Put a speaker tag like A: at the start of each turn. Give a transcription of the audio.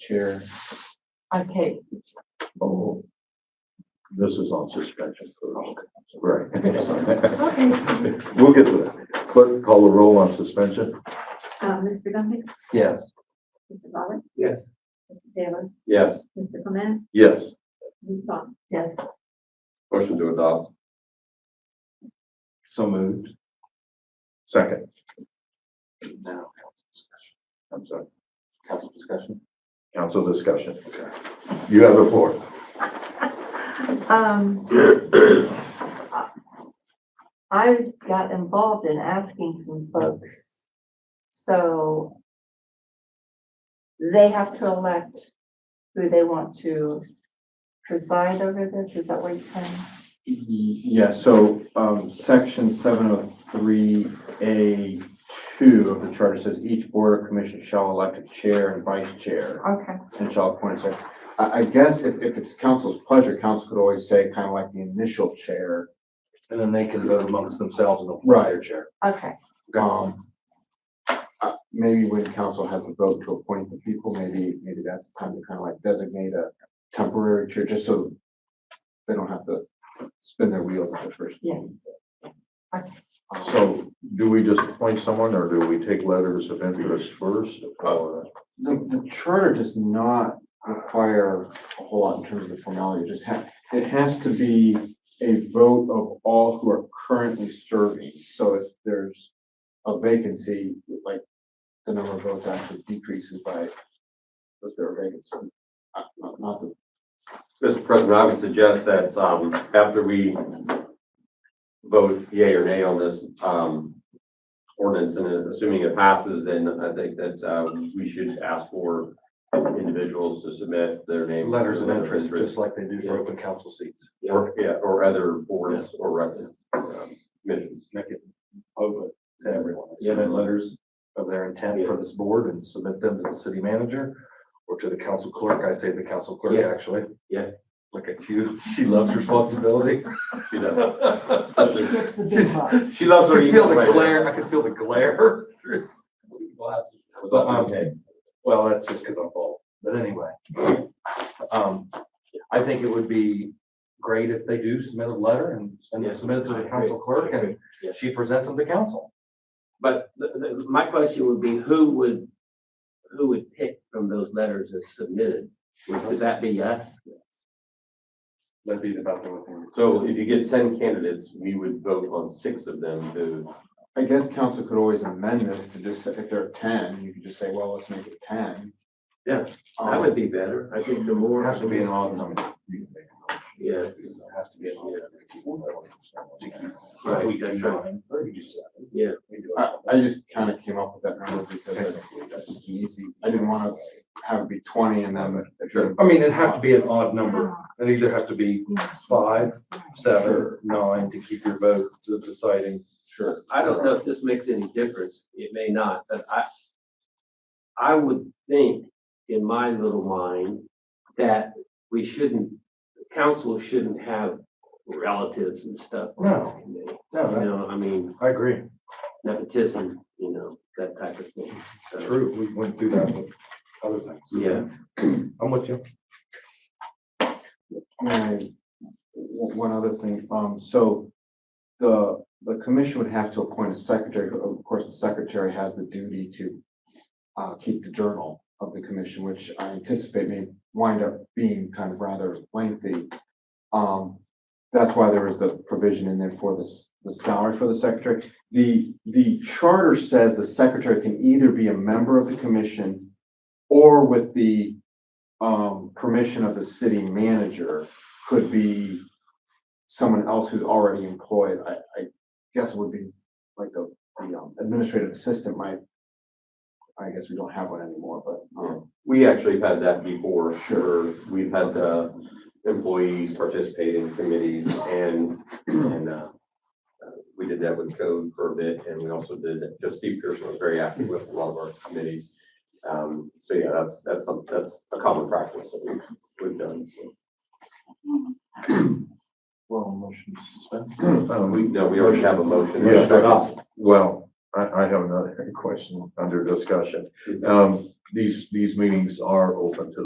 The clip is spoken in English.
A: Chair.
B: Okay,
C: Oh, this is on suspension first. Right.
B: okay,
C: We'll get to that. Clerk, call the roll on suspension?
B: Uh,
D: Um, Mr. Dumpy,
A: Yes.
D: Mr. Robert,
A: Yes.
D: Mr. Taylor,
C: Yes.
D: Mr. Clement,
C: Yes.
D: Ms. Song.
B: yes,
C: Motion to adopt.
A: So moved.
C: Second.
A: Now,
C: I'm sorry.
A: council discussion.
C: Council discussion. You have the floor.
B: um. I got involved in asking some folks, so. They have to elect who they want to preside over this, is that what you're saying?
A: Yeah, so, um, section seven oh three A two of the charter says each board or commission shall elect a chair and vice chair
B: Okay,
A: and shall appoint a secretary. I, I guess if, if it's council's pleasure, council could always say kind of like the initial chair.
E: And then they can vote amongst themselves and appoint
A: Right.
E: their chair.
B: okay,
A: Um, uh, maybe when council has a vote to appoint the people, maybe, maybe that's time to kind of like designate a temporary chair, just so they don't have to spin their wheels at the first.
B: yes.
C: So do we just appoint someone or do we take letters of interest first? or-
A: The, the charter does not require a whole lot in terms of the formality, it just ha- it has to be a vote of all who are currently serving, so if there's a vacancy, like, the number of votes actually decreases by, was there a vacancy? Uh, Not, not the
F: Mr. President, I would suggest that, um, after we vote yea or nay on this, um, ordinance, and assuming it passes, then I think that, uh, we should ask for individuals to submit their name.
E: Letters of interest, just like they do for open council seats.
F: Or, yeah, or other boards or rec, um, commissions.
E: Open to everyone.
F: Yeah.
E: Submit letters of their intent for this board and submit them to the city manager or to the council clerk. I'd say the council clerk,
F: Yeah.
E: actually.
F: Yeah.
E: Look at you. She loves responsibility.
F: She
E: She
F: does.
E: loves
B: Here's the big part.
F: She loves her
E: I could feel
F: email right now.
E: the glare. I could feel the glare. through-
F: Was that okay?
E: Well, that's just because I'm bald, but anyway. Um, I think it would be great if they do submit a letter and,
F: Yeah.
E: and submit it to
F: I
E: the
F: agree.
E: council clerk and
F: Yeah.
E: she presents them to council.
G: But the, the, my question would be, who would, who would pick from those letters as submitted? Would that be us?
E: That'd be about the only thing.
F: So if you get ten candidates, we would vote on six of them to,
A: I guess council could always amend this to just, say if there are ten, you could just say, well, let's make it ten.
G: Yeah,
A: Um,
G: be better. I think the
E: It
G: more.
E: has to be an odd number.
G: Yeah.
E: It has to be an odd.
G: Right, that's right. Yeah.
A: I, I just kind of came up with that number because I- that's just an easy, I didn't want to have it be twenty and then.
F: Sure.
E: I mean, it'd have to be an odd number. It'd either have to be five, seven,
A: Sure.
E: nine to keep your vote to deciding.
A: Sure.
G: I don't know if this makes any difference. It may not, but I, I would think in my little mind that we shouldn't, council shouldn't have relatives and stuff. on this committee. You
E: No,
G: know, I mean,
E: I agree.
G: nepotism, you know, that type of thing. So,
E: True, we went through that with other things.
G: Yeah,
E: I'm with you.
A: And one one other thing, um, so the, the commission would have to appoint a secretary. Of course, the secretary has the duty to uh, keep the journal of the commission, which I anticipate may wind up being kind of rather lengthy. Um, that's why there was the provision in there for this, the salary for the secretary. The, the charter says the secretary can either be a member of the commission or with the um, permission of the city manager could be someone else who's already employed. I, I guess it would be like the, the um, administrative assistant might, I guess we don't have one anymore, but, um,
F: we actually have had that before,
A: Sure.
F: sure, we've had, uh, employees participate in committees and, and, uh, uh, we did that with code for a bit, and we also did, just Steve Pearson was very active with a lot of our committees. Um, so yeah, that's, that's some, that's a common practice that we've, we've done, so.
E: Well, motion to suspend.
C: Um,
F: We, no, we already have a motion. and a
C: Yeah.
F: second.
C: Well, I, I have another question under discussion. Um, these, these meetings are open to